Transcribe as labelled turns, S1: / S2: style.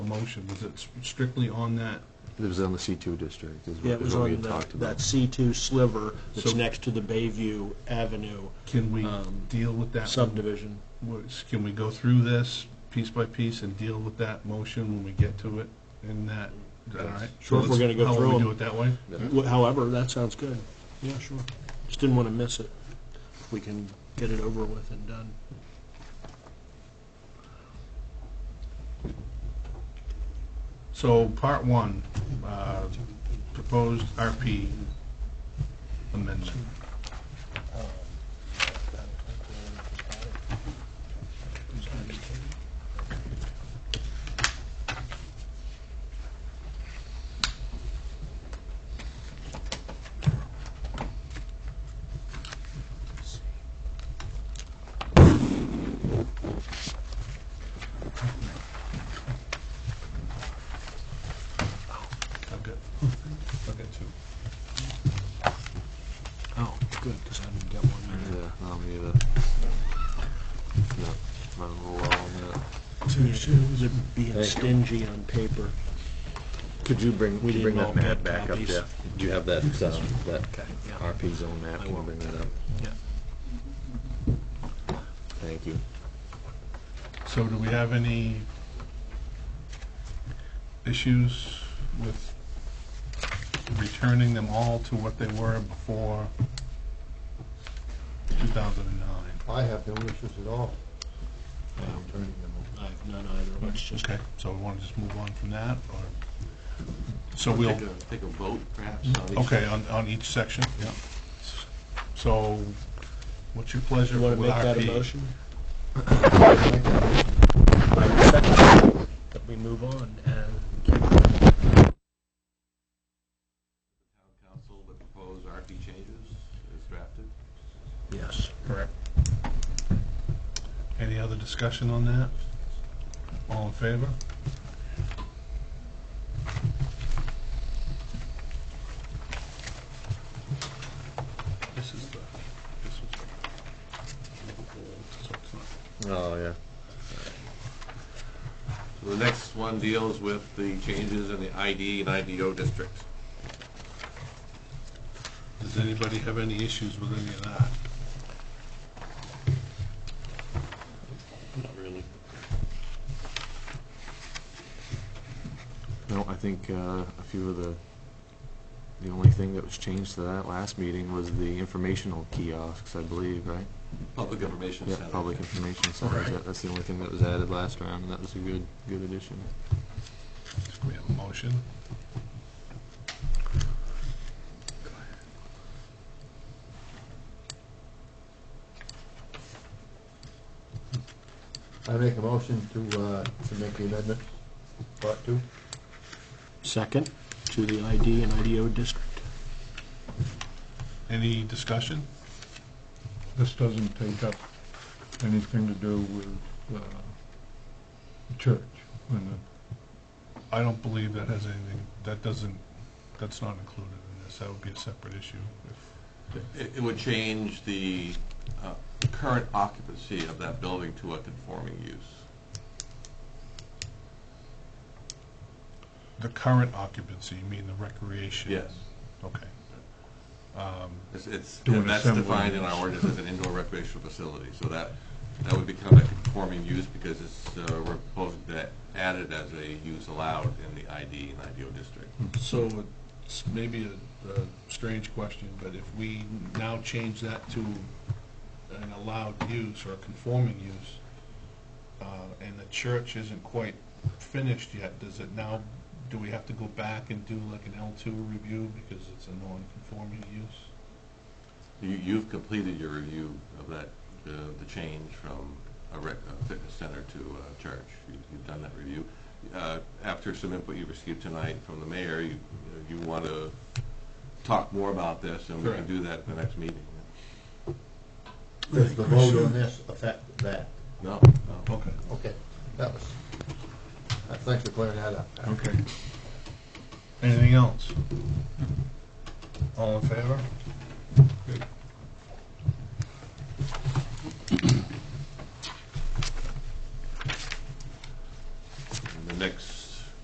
S1: motion? Was it strictly on that?
S2: It was on the C2 district, is
S3: Yeah,
S2: what
S3: it
S2: is
S3: was
S2: what we
S3: on
S2: had
S3: that,
S2: talked
S3: that
S2: about.
S3: C2 sliver that's
S1: So-
S3: next to the Bayview Avenue
S1: Can we
S3: Um,
S1: deal with that?
S3: subdivision.
S1: Was- Can we go through this piece by piece and deal with that motion when we get to it in that, is that all right?
S3: Sure, if we're gonna go
S1: How will
S3: through
S1: we
S3: 'em.
S1: do it that way?
S3: Wh- However, that sounds good. Yeah, sure. Just didn't want to miss it. If we can get it over with and done.
S1: So part one, uh, proposed RP amendment. I've got, I've got two.
S3: Oh, good, because I didn't get one.
S2: Yeah, uh, no, me either. No, running low on that.
S3: Is it being
S2: Thank you.
S3: stingy on paper?
S2: Could you bring,
S3: We could you bring didn't that all map get back up, copies. Jeff?
S2: Do you have that, um, that
S3: Okay, yeah.
S2: RP zone map?
S3: I
S2: Can you
S3: will.
S2: bring that up?
S3: Yeah.
S2: Thank you.
S1: So do we have any issues with returning them all to what they were before 2009?
S4: I have no issues at all. I'm turning them over.
S3: I have none either. Let's just
S1: Okay, so we want to just move on from that, or, so we'll,
S5: Take a, take a vote perhaps on each.
S1: okay, on, on each section, yeah. So, what's your pleasure
S3: You
S1: with
S3: want
S1: RP?
S3: to make that a motion? That we move on and
S5: Council would propose RP changes as drafted.
S3: yes.
S1: Correct. Any other discussion on that? All in favor? This is the, this was the old, so it's not-
S2: Oh, yeah.
S5: So the next one deals with the changes in the ID and IDO districts.
S1: Does anybody have any issues with any of that?
S5: Not really.
S2: No, I think uh, a few of the, the only thing that was changed to that last meeting was the informational kiosks, I believe, right?
S5: Public information
S2: Yeah,
S5: center.
S2: public information centers. That- That's the only thing that was added last round, and that was a good, good addition.
S1: Do we have a motion?
S4: I make a motion to, uh, to make the amendment, part two.
S3: Second to the ID and IDO district.
S1: Any discussion?
S6: This doesn't take up anything to do with uh, the church. and the-
S1: I don't believe that has anything, that doesn't, that's not included in this. That would be a separate issue if
S5: It, it would change the, uh, current occupancy of that building to a conforming use.
S1: The current occupancy, you mean the recreation?
S5: Yes.
S1: Okay. Um,
S5: It's, it's,
S6: Do an
S5: and that's
S6: assembly.
S5: defined in our ordinance as an indoor recreational facility, so that, that would become a conforming use because it's, uh, we're proposing that added as a use allowed in the ID and IDO district.
S1: So it's maybe a, a strange question, but if we now change that to an allowed use or a conforming use, uh, and the church isn't quite finished yet, does it now, do we have to go back and do like an L two review because it's a non-conforming use?
S5: You, you've completed your review of that, uh, the change from a rec, a fitness center to a church. You- You've done that review. Uh, After some input you received tonight from the mayor, you, you want to talk more about this, and we can
S1: Correct.
S5: do that at the next meeting.
S4: Does the vote on this affect that?
S5: No, no.
S1: Okay.
S4: Okay, that was, uh, thanks for clearing that up.
S1: Okay. Anything else? All in favor? Good.